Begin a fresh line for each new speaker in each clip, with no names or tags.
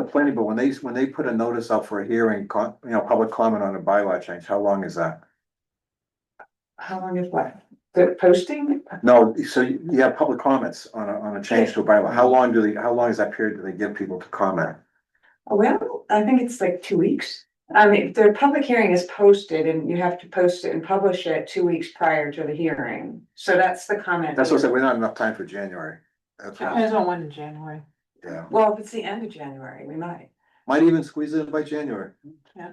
planning, but when they, when they put a notice out for a hearing, co- you know, public comment on a bylaw change, how long is that?
How long is what? The posting?
No, so you you have public comments on a, on a change to a bylaw. How long do they, how long is that period do they give people to comment?
Oh, Well, I think it's like two weeks. I mean, the public hearing is posted and you have to post it and publish it two weeks prior to the hearing. So that's the comment.
That's what I said, we're not enough time for January. That's what-
Depends on when in January.
yeah.
Well, if it's the end of January, we might,
Might even squeeze it in by January.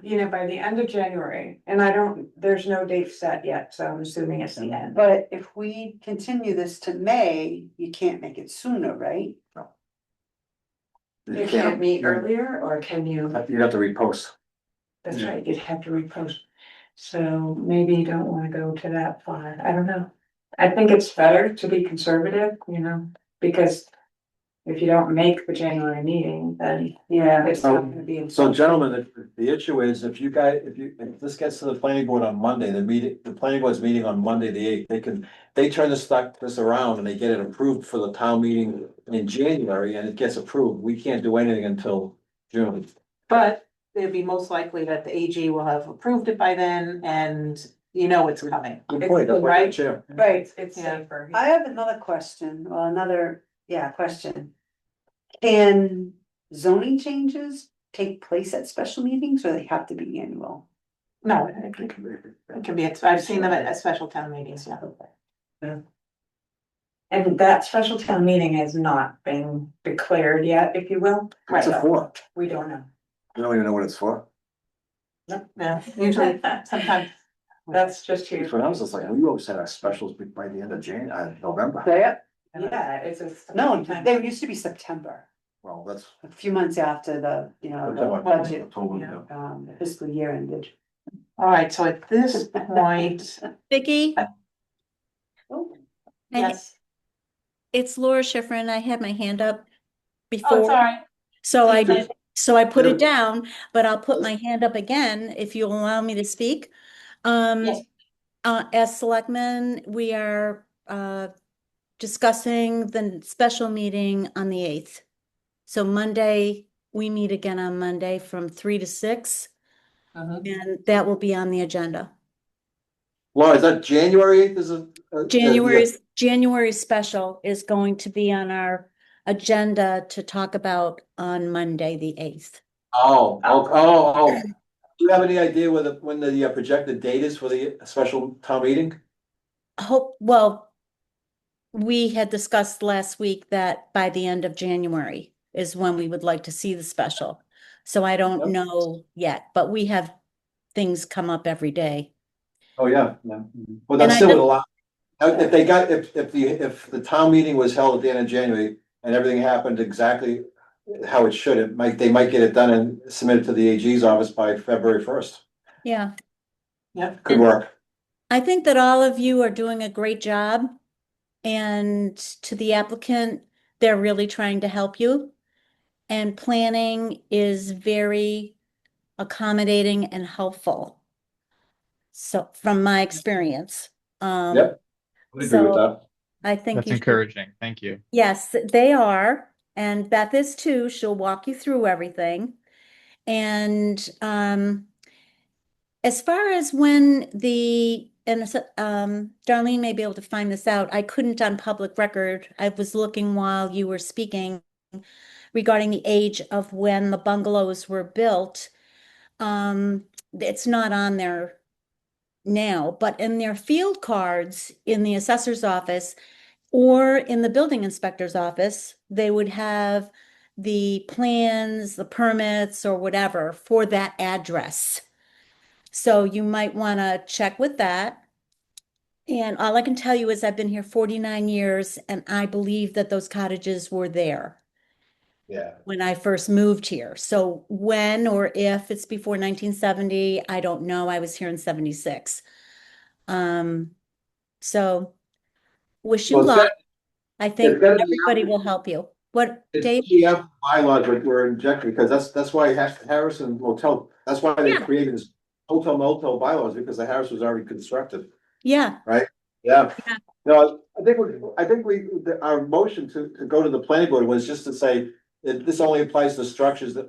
you know, by the end of January. And I don't, there's no date set yet, so I'm assuming it's the end.
But if we continue this to May, you can't make it sooner, right?
You can't meet earlier or can you?
You'd have to repost.
That's
Yeah.
right, you'd have to repost. So maybe you don't wanna go to that far, I don't know. I think it's better to be conservative, you know, because. If you don't make the January meeting, then
Yeah.
it's not gonna be.
So gentlemen, the, the issue is if you guys, if you, if this gets to the planning board on Monday, the meeting, the planning board's meeting on Monday, the eighth, they can. They turn this stuff, this around and they get it approved for the town meeting in January and it gets approved. We can't do anything until June.
But it'd be most likely that the AG will have approved it by then and you know it's coming.
Good point, that's what the chair.
Right,
It's
Yeah.
safer.
I have another question, well, another, yeah, question. Can zoning changes take place at special meetings or they have to be annual?
No, it can- it can be, it's- I've seen them at, at special town meetings, yeah.
And that special town meeting has not been declared yet, if you will,
What's it
Right.
for?
we don't know.
You don't even know what it's for.
Yeah, usually sometimes.
That's just here.
That's what I was just like, we always had our specials be- by the end of Jan, uh, November.
Yeah.
Yeah, it's a.
No, they used to be September,
Well, that's.
a few months after the, you know, the budget,
October,
um, fiscal year ended.
All right, so at this point,
Vicky,
Uh,
Oh,
yes,
it's Laura Schifrin. I had my hand up
oh,
before,
sorry,
so I
Sorry.
did, so I put
Yeah.
it down, but I'll put my hand up again if you'll allow me to speak. Um,
Yes.
uh, as selectmen, we are, uh, discussing the special meeting on the eighth. So Monday, we meet again on Monday from three to six,
Mhm.
and that will be on the agenda.
Laura, is that January eighth is a? a-
January's, January special is going to be on our agenda to talk about on Monday, the eighth.
Oh, oh, oh, oh. Do you have any idea whether, when the uh, projected date is for the special town meeting?
Hope, well, we had discussed last week that by the end of January is when we would like to see the special. So I
Yep.
don't know yet, but we have things come up every day.
Oh, yeah, yeah. Well,
And
that's
I
still would
know-
allow. uh, If they got, if, if the, if the town meeting was held at the end of January and everything happened exactly how it should, it might, they might get it done and submitted to the AG's office by February first.
Yeah,
yeah,
Could work.
I think that all of you are doing a great job. And to the applicant, they're really trying to help you. And planning is very accommodating and helpful. So from my experience, um.
Yep. I agree with
So-
that.
I think
That's
you should-
encouraging. Thank you.
Yes, they are. And Beth is too. She'll walk you through everything. And um, as far as when the, and it's, um, Darlene may be able to find this out. I couldn't on public record. I was looking while you were speaking regarding the age of when the bungalows were built. Um, it's not on there now, but in their field cards in the assessor's office, or in the building inspector's office, they would have the plans, the permits, or whatever for that address. So you might want to check with that. And all I can tell you is I've been here 49 years and I believe that those cottages were there
Yeah.
when I first moved here. So when or if it's before 1970, I don't know. I was here in 76. Um, so wish you
Well, it's
luck. I think
gotta be
everybody will help you. What, Dave?
It's GF E bylaws were, were injected, because that's, that's why Ha- Harrison Motel, that's why they
Yeah.
created this hotel motel bylaws, because the Harris was already constructed.
Yeah,
Yeah.
Yeah.
No, I think, we I think we, the- our motion to, to go to the planning board was just to say that this only applies to structures that